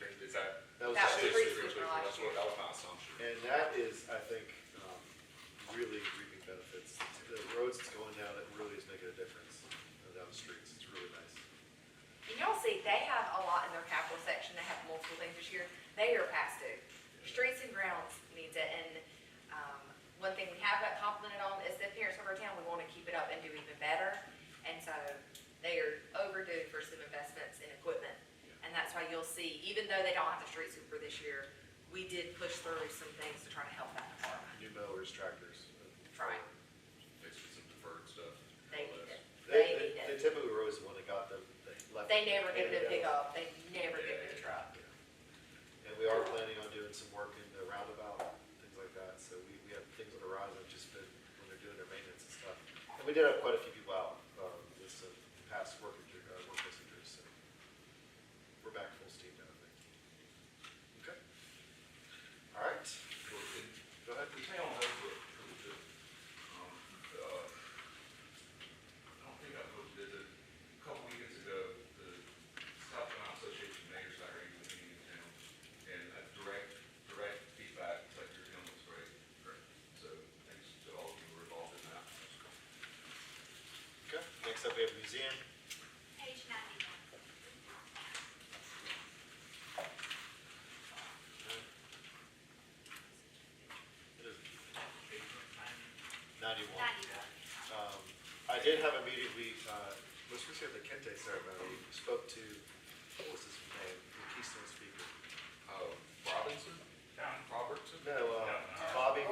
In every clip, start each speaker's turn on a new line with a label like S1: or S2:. S1: um,
S2: couple things this year, they are past due. Streets and grounds needs it, and, um, one thing we have got complimented on is the appearance of our town, we wanna keep it up and do even better. And so, they are overdue for some investments in equipment, and that's why you'll see, even though they don't have the street sweeper this year, we did push through some things to try to help that department.
S1: New mowers, tractors.
S2: Right.
S3: Fixed with some deferred stuff.
S2: They
S3: all
S2: need
S3: that.
S2: it,
S1: They,
S2: they need
S1: they
S2: it.
S1: typically were always the one that got them, they left.
S2: They never
S1: handed
S2: give it a
S1: down.
S2: pickup, they never give it a truck.
S1: And we are planning on doing some work in the roundabout, things like that, so we, we have things on the horizon, just been, when they're doing their maintenance and stuff. And we did have quite a few people out, um, this, uh, past work injury, uh, work injuries, so we're back full steam now, I think. Okay. All right, go ahead.
S3: The town has a pretty good, um, uh, I don't think I posted it, a couple weekends ago, the South Carolina Association of Mayor's Diary was meeting in town, and a direct, direct feedback, it's like your town looks great. So thanks to all of you who were involved in that.
S1: Okay, next up, we have museum.
S4: Page ninety-one.
S1: Ninety-one.
S4: Ninety-one.
S1: Um, I did have a meeting, we, uh, was supposed to have the Kente ceremony, we spoke to, what was his name, the Keystone speaker?
S3: Uh, Robinson? Town Robertson?
S1: No, uh, Bobby,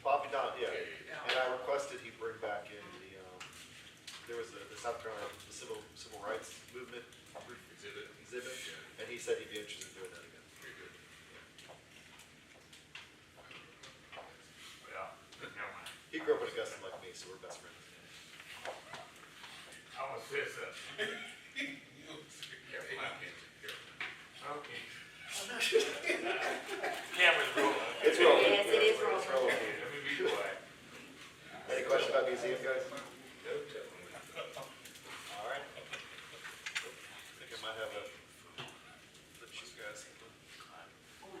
S1: Bobby Don, yeah. And I requested he bring back in the, um, there was a, the South Carolina Civil, Civil Rights Movement
S3: Exhibit.
S1: exhibit,
S3: Yeah,
S1: and he said he'd be interested in doing that again.
S3: very good.
S5: Well, never mind.
S1: He grew up in Augusta like me, so we're best friends.
S5: I was pissed up.
S3: Careful, I can't, careful.
S5: Okay. Camera's rolling.
S1: It's rolling.
S2: Yes, it is rolling.
S5: Okay, let me be quiet.
S1: Any questions about museum, guys?
S3: No telling.
S1: All right. I think I might have a, let you guys. What was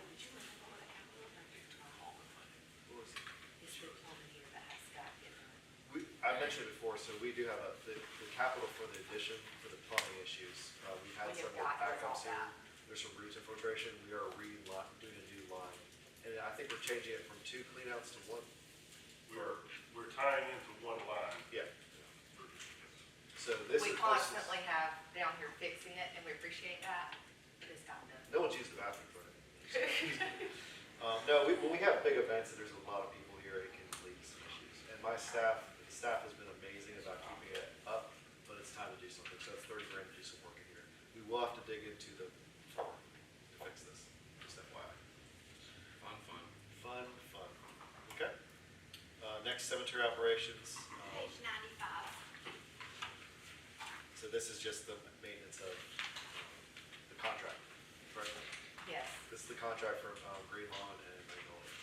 S1: it?
S2: It's the plumbing here that has got different.
S1: We, I mentioned it before, so we do have a, the, the capital for the addition, for the plumbing issues, uh, we had
S2: We
S1: some
S2: have got those all
S1: backups here.
S2: back.
S1: There's some root infiltration, we are re-line, doing a new line, and I think we're changing it from two cleanouts to one,
S6: We're, we're tying into one line.
S1: yeah. So this is.
S2: We
S1: this is-
S2: constantly have down here fixing it, and we appreciate that, but it's not done.
S1: No one's used the bathroom for it. Um, no, we, when we have big events and there's a lot of people here, it can lead to some issues. And my staff, the staff has been amazing about keeping it up, but it's time to do something. So it's thirty grand to do some work in here. We will have to dig into the floor to fix this, just FYI.
S3: Fun, fun.
S1: Fun, fun. Okay. Uh, next cemetery operations. Um,
S4: Page ninety-five.
S1: so this is just the maintenance of um, the contract, right?
S2: Yes,
S1: This is the contract for um, Green Lawn and Magnolia.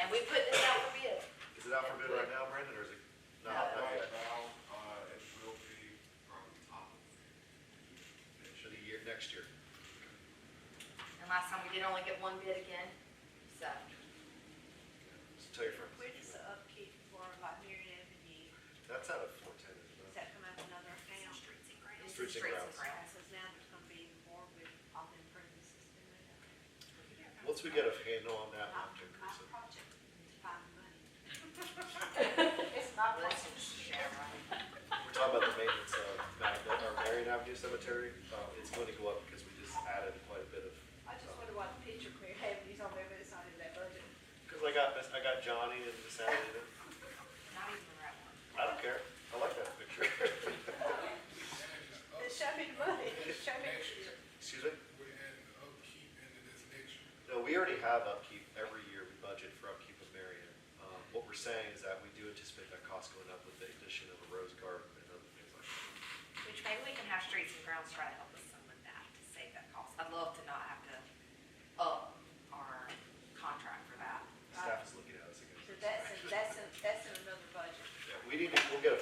S2: and we put this out for bid.
S1: Is it out for bid right now, Brandon, or is it? No, not
S2: No.
S1: yet.
S3: now, uh, it will be probably top of
S1: For the year, next year.
S2: And last time we did only get one bid again, so.
S1: So tell your friends.
S7: Where does the upkeep for Liberia Avenue,
S1: That's out of four ten, isn't
S7: does
S1: it?
S7: that come out of another account?
S4: Streets and
S2: it's
S4: grounds.
S1: Streets and
S7: Uh, So now there's gonna be more with all the improvements that's been made.
S1: Once we get a handle on that,
S7: My,
S1: we'll do
S7: my
S1: it.
S7: project is to find money.
S2: It's not blessing, Sharon.
S1: We're talking about the maintenance of Mount- our Marion Avenue Cemetery. Um, It's going to go up because we just added quite a bit of,
S7: I just wonder why the picture Claire Avenue's on there, but it's not in that budget.
S1: because I got, this- I got Johnny and Miss Avenue. Um,